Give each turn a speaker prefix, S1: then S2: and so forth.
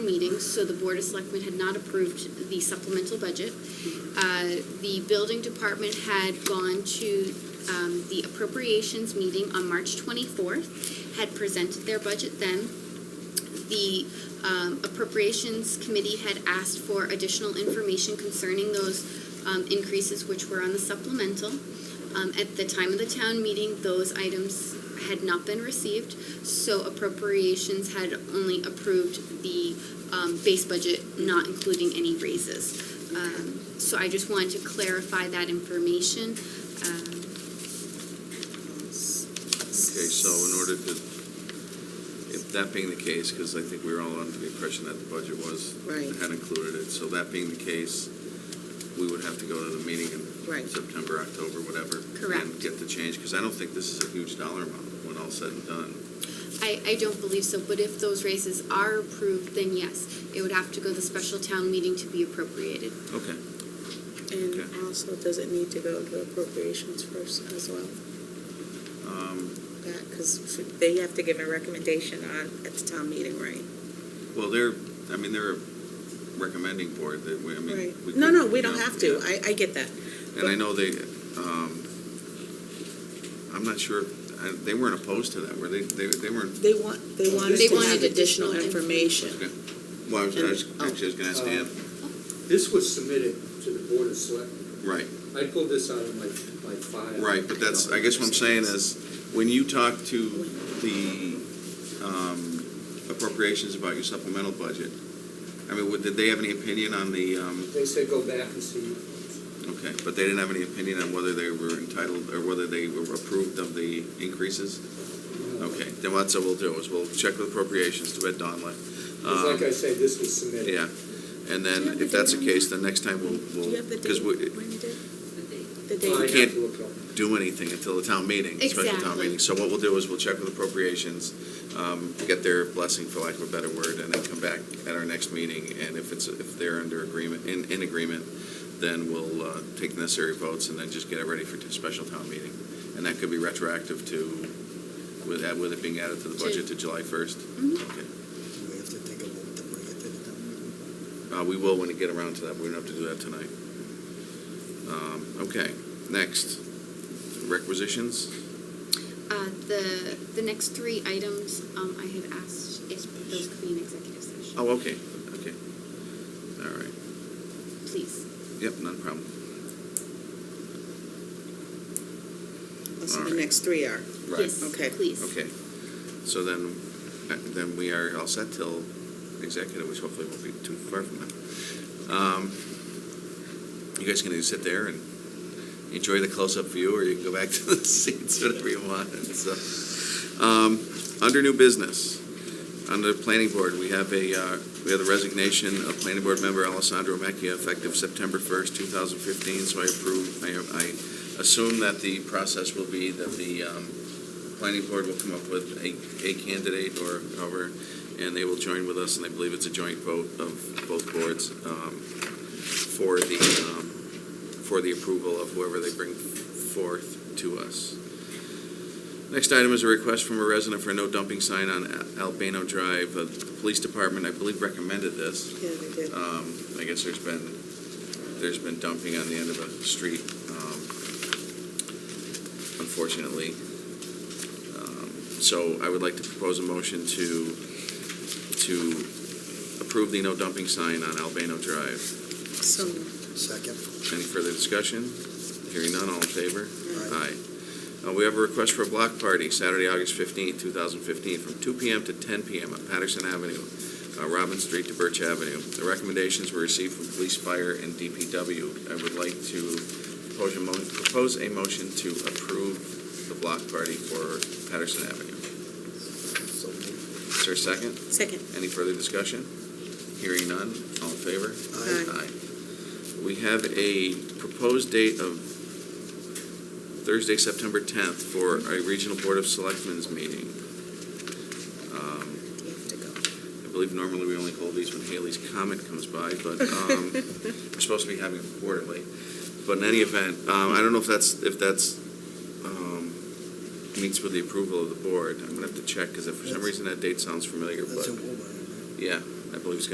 S1: meetings, so the Board of Selectmen had not approved the supplemental budget. Uh, The building department had gone to um, the appropriations meeting on March 24th, had presented their budget then. The um, appropriations committee had asked for additional information concerning those um, increases which were on the supplemental. Um, At the time of the town meeting, those items had not been received, so appropriations had only approved the um, base budget, not including any raises. Um, So I just wanted to clarify that information. Um, s-
S2: Okay, so in order to, if that being the case, because I think we were all under the impression that the budget was,
S3: Right.
S2: had included it, so that being the case, we would have to go to the meeting in
S3: Right.
S2: September, October, whatever.
S1: Correct.
S2: And get the change, because I don't think this is a huge dollar amount when all said and done.
S1: I, I don't believe so, but if those raises are approved, then yes, it would have to go to the special town meeting to be appropriated.
S2: Okay.
S3: And
S2: Okay.
S3: also, does it need to go to appropriations first as well?
S2: Um,
S3: That, because they have to give a recommendation on, at the town meeting, right?
S2: Well, they're, I mean, they're a recommending board that we, I mean.
S3: Right.
S2: we
S3: No,
S2: could,
S3: no, we
S2: you
S3: don't
S2: know,
S3: have to.
S2: yeah.
S3: I, I get that.
S2: And I know they, um, I'm not sure, I- they weren't opposed to that, were they? They, they weren't
S3: They want,
S2: Oh,
S3: they want us
S1: They
S3: to have
S1: wanted additional
S3: additional information.
S2: Well, I was, I was-
S3: And- oh.
S2: actually, I was gonna ask Dan,
S4: This was submitted to the Board of Selectmen.
S2: right,
S4: I pulled this out of my, my file.
S2: right, but that's, I guess what I'm saying is, when you talk to the, um, appropriations about your supplemental budget, I mean, would, did they have any opinion on the, um,
S4: They said go back and see.
S2: okay, but they didn't have any opinion on whether they were entitled, or whether they were approved of the increases? Okay, then what, so we'll do is, we'll check with appropriations to bed Don left.
S4: Because like I said, this was submitted.
S2: um, Yeah, and
S3: Do you have
S2: then,
S3: the
S2: if that's the
S3: date on
S2: case,
S3: that?
S2: then next time
S3: Do
S2: we'll,
S3: you
S2: we'll,
S3: have the
S2: because
S3: date,
S2: we,
S3: when you did?
S1: Uh,
S3: The
S4: Well, I
S2: You
S3: date?
S4: have
S2: can't-
S4: to look up.
S2: do anything until the town meeting, special town
S1: Exactly.
S2: meeting. So what we'll do is we'll check with appropriations, um, get their blessing, for lack of a better word, and then come back at our next meeting. And if it's, if they're under agreement, in, in agreement, then we'll uh, take the necessary votes and then just get it ready for t- special town meeting. And that could be retroactive to, with that, with it being added to the budget to July 1st.
S1: Mhm.
S2: Okay.
S5: Do we have to take a vote to bring it to the town meeting?
S2: Uh, we will when we get around to that, we don't have to do that tonight. Um, Okay, next, requisitions?
S1: Uh, The, the next three items um, I had asked if those could be in executive session.
S2: Oh, okay, okay. All right.
S1: Please.
S2: Yep, not a problem.
S3: So
S2: Alright.
S3: the next three are.
S2: Right.
S1: Yes,
S3: Okay.
S1: please.
S2: Okay. So then, uh, then we are all set till executive, which hopefully won't be too far from now. Um, You guys can either sit there and enjoy the close-up view, or you can go back to the seats, whatever you want, and so. um, Under new business, under the planning board, we have a, uh, we have the resignation of planning board member Alessandro Macchia effective September first, two thousand fifteen, so I approve, I, I assume that the process will be that the, um, planning board will come up with a, a candidate or however, and they will join with us, and I believe it's a joint vote of both boards, um, for the, um, for the approval of whoever they bring forth to us. Next item is a request from a resident for a no dumping sign on Al- Albano Drive. Uh, The police department, I believe, recommended this.
S3: Yeah, they did.
S2: Um, I guess there's been, there's been dumping on the end of a street, um, unfortunately. Um, So I would like to propose a motion to, to approve the no dumping sign on Albano Drive.
S3: So,
S5: Second.
S2: Any further discussion? Hearing none, all in favor?
S5: Aye.
S2: Aye. Uh, We have a request for a block party, Saturday, August 15th, 2015, from 2 PM to 10 PM on Patterson Avenue, uh, Robin Street to Birch Avenue. The recommendations were received from police, fire, and DPW. I would like to propose a mo- propose a motion to approve the block party for Patterson Avenue.
S5: So moved.
S2: Is there a second?
S3: second.
S2: Any further discussion? Hearing none, all in favor?
S5: Aye.
S3: Aye.
S2: We have a proposed date of Thursday, September 10th for a regional Board of Selectmen's meeting. Um,
S3: You have to go.
S2: I believe normally we only hold these when Haley's comment comes by, but um, we're supposed to be having them quarterly. But in any event, um, I don't know if that's, if that's, um, meets with the approval of the board. I'm gonna have to check, because if for some reason that date sounds familiar,
S5: That's
S2: but,
S5: in Woburn, right?
S2: yeah, I believe it's